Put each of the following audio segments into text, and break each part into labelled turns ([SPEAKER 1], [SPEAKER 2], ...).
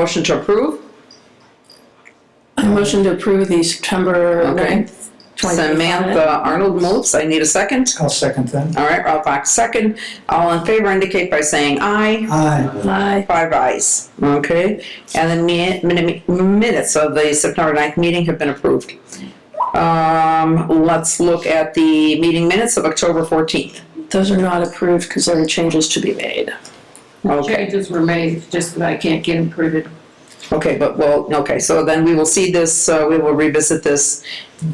[SPEAKER 1] Motion to approve?
[SPEAKER 2] I motion to approve the September
[SPEAKER 1] Okay.
[SPEAKER 2] 9th, 2025.
[SPEAKER 1] Samantha Arnold moves. I need a second.
[SPEAKER 3] I'll second that.
[SPEAKER 1] All right, Ralph Fox, second. All in favor indicate by saying aye.
[SPEAKER 3] Aye.
[SPEAKER 2] Aye.
[SPEAKER 1] Five ayes, okay? And the mi- min- minutes of the September 9th meeting have been approved. Um, let's look at the meeting minutes of October 14th.
[SPEAKER 2] Those are not approved because there are changes to be made.
[SPEAKER 1] Okay,
[SPEAKER 4] Changes were made, just that I can't get them printed.
[SPEAKER 1] okay, but well, okay, so then we will see this, uh, we will revisit this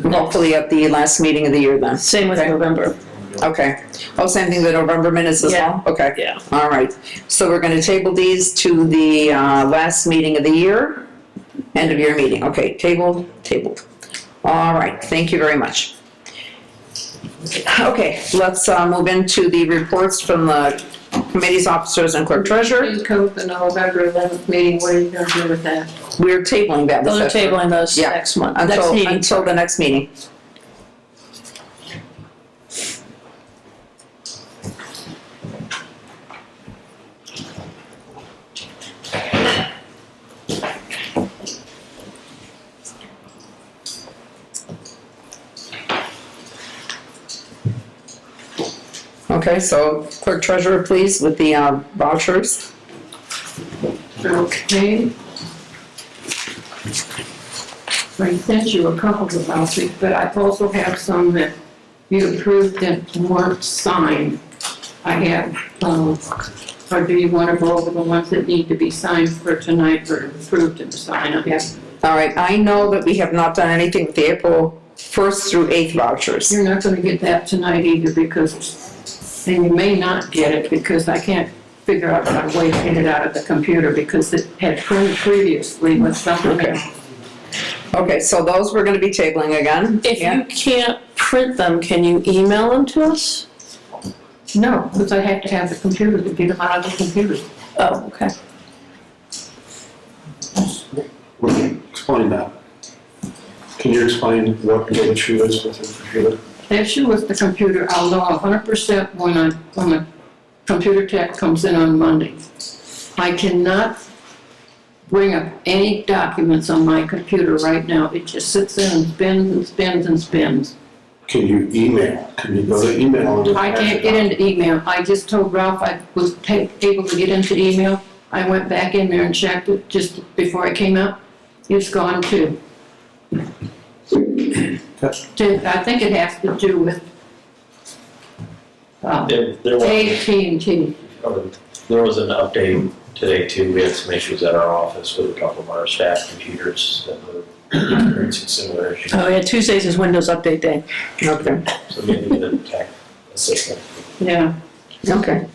[SPEAKER 1] hopefully at the last meeting of the year then.
[SPEAKER 2] Same with
[SPEAKER 1] Okay.
[SPEAKER 2] November.
[SPEAKER 1] Okay. Oh, same thing, the November minutes as well? Okay.
[SPEAKER 2] Yeah.
[SPEAKER 1] All right, so we're gonna table these to the, uh, last meeting of the year, end of year meeting, okay, tabled, tabled. All right, thank you very much. Okay, let's, uh, move into the reports from the committees, officers, and clerk treasurer.
[SPEAKER 2] Mm-hmm.
[SPEAKER 4] You code the November eleventh meeting, what are you gonna do with that?
[SPEAKER 1] We're tabling that.
[SPEAKER 2] Those are tabling those
[SPEAKER 1] Yeah.
[SPEAKER 2] next month, next
[SPEAKER 1] Until,
[SPEAKER 2] meeting.
[SPEAKER 1] until the next meeting. Okay, so clerk treasurer, please, with the uh, vouchers.
[SPEAKER 4] Okay. I sent you a couple of vouchers, but I also have some that you approved that weren't signed. I have, um, or do you wanna go over the ones that need to be signed for tonight for approved and signed? I have,
[SPEAKER 1] All right, I know that we have not done anything with the April 1st through 8th vouchers.
[SPEAKER 4] you're not gonna get that tonight either because, and you may not get it because I can't figure out my way to get it out of the computer because it had printed previously with something
[SPEAKER 1] Okay.
[SPEAKER 4] else.
[SPEAKER 1] Okay, so those we're gonna be tabling again?
[SPEAKER 2] If
[SPEAKER 1] Yeah.
[SPEAKER 2] you can't print them, can you email them to us?
[SPEAKER 4] No, because I have to have the computer to get them out of the computer.
[SPEAKER 2] Oh, okay.
[SPEAKER 5] Explain that. Can you explain what the issue is with the computer?
[SPEAKER 4] The issue with the computer, I'll know hundred percent when I, when the computer tech comes in on Monday. I cannot bring up any documents on my computer right now. It just sits in and spins and spins and spins.
[SPEAKER 5] Can you email? Can you go to email? and-
[SPEAKER 4] I can't get into email. I just told Ralph I was ta- able to get into email. I went back in there and checked it just before I came out. It's gone too.
[SPEAKER 5] That's-
[SPEAKER 4] I think it has to do with uh,
[SPEAKER 6] There, there was,
[SPEAKER 4] AT&T.
[SPEAKER 6] there was an update today too, we had some issues at our office with a couple of our staff computers that were experiencing similar issues.
[SPEAKER 2] Oh, yeah, Tuesdays is Windows Update Day.
[SPEAKER 1] Okay,
[SPEAKER 6] So maybe the tech assistant.
[SPEAKER 4] Yeah,
[SPEAKER 1] okay.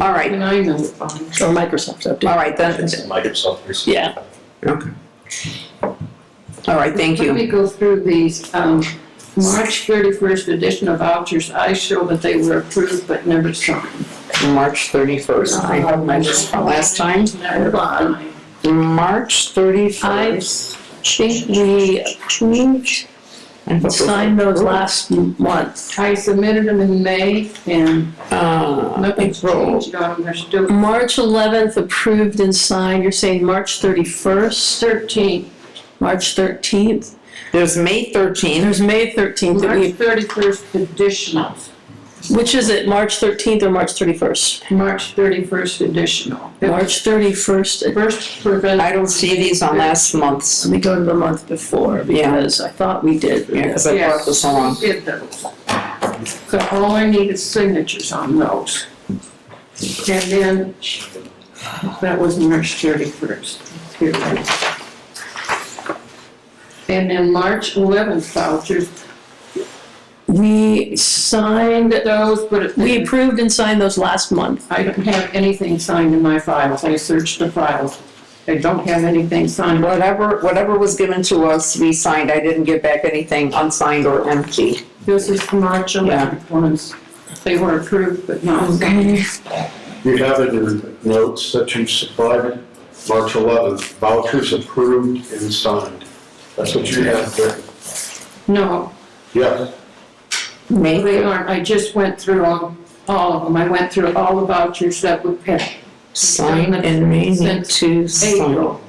[SPEAKER 1] All right,
[SPEAKER 4] and I know it's fine.
[SPEAKER 2] Or Microsoft
[SPEAKER 1] all
[SPEAKER 2] update.
[SPEAKER 1] right, then,
[SPEAKER 6] It's Microsoft. or something.
[SPEAKER 2] Yeah.
[SPEAKER 1] all right, thank
[SPEAKER 4] Let
[SPEAKER 1] you.
[SPEAKER 4] me go through these. Um, March 31st edition of vouchers, I show that they were approved but never signed.
[SPEAKER 1] March 31st, I have my list from last time.
[SPEAKER 4] Never signed.
[SPEAKER 1] March
[SPEAKER 2] I
[SPEAKER 1] 31st.
[SPEAKER 2] think we approved, and signed those
[SPEAKER 1] Uh,
[SPEAKER 2] last month.
[SPEAKER 4] I submitted them in May and
[SPEAKER 1] Uh,
[SPEAKER 4] nothing's
[SPEAKER 1] April.
[SPEAKER 4] changed on them. They're still
[SPEAKER 2] March 11th approved and signed, you're saying March 31st,
[SPEAKER 4] 13.
[SPEAKER 2] March 13th?
[SPEAKER 1] There's May
[SPEAKER 2] And
[SPEAKER 1] 13th.
[SPEAKER 2] there's May 13th, that
[SPEAKER 4] March
[SPEAKER 2] we-
[SPEAKER 4] 31st additionals.
[SPEAKER 2] which is it, March 13th or March 31st?
[SPEAKER 4] March 31st additional.
[SPEAKER 2] March 31st, let
[SPEAKER 4] First prevent.
[SPEAKER 1] I don't see these on last month's,
[SPEAKER 2] me go to the month before,
[SPEAKER 1] Yeah.
[SPEAKER 2] because I thought we did.
[SPEAKER 1] yeah, because I brought this along.
[SPEAKER 4] Did those. So all I need is signatures on those. And then, that was March thirty-first. And then March eleventh vouchers,
[SPEAKER 2] We signed,
[SPEAKER 4] those, but
[SPEAKER 2] we
[SPEAKER 4] we,
[SPEAKER 2] approved and signed those last month.
[SPEAKER 4] I don't have anything signed in my files. I searched the files. I don't have anything signed.
[SPEAKER 1] Whatever, whatever was given to us, we signed. I didn't give back anything unsigned or empty.
[SPEAKER 4] This is the March eleventh ones. They were approved but not signed.
[SPEAKER 1] Okay.
[SPEAKER 5] You have it in notes that you supplied, March 11th, vouchers approved and signed. That's what you have there.
[SPEAKER 4] No,
[SPEAKER 5] Yes.
[SPEAKER 1] May
[SPEAKER 4] They aren't, I just went through all, all of them, I went through all the vouchers that we had
[SPEAKER 1] Sign and may need to sign.
[SPEAKER 4] April.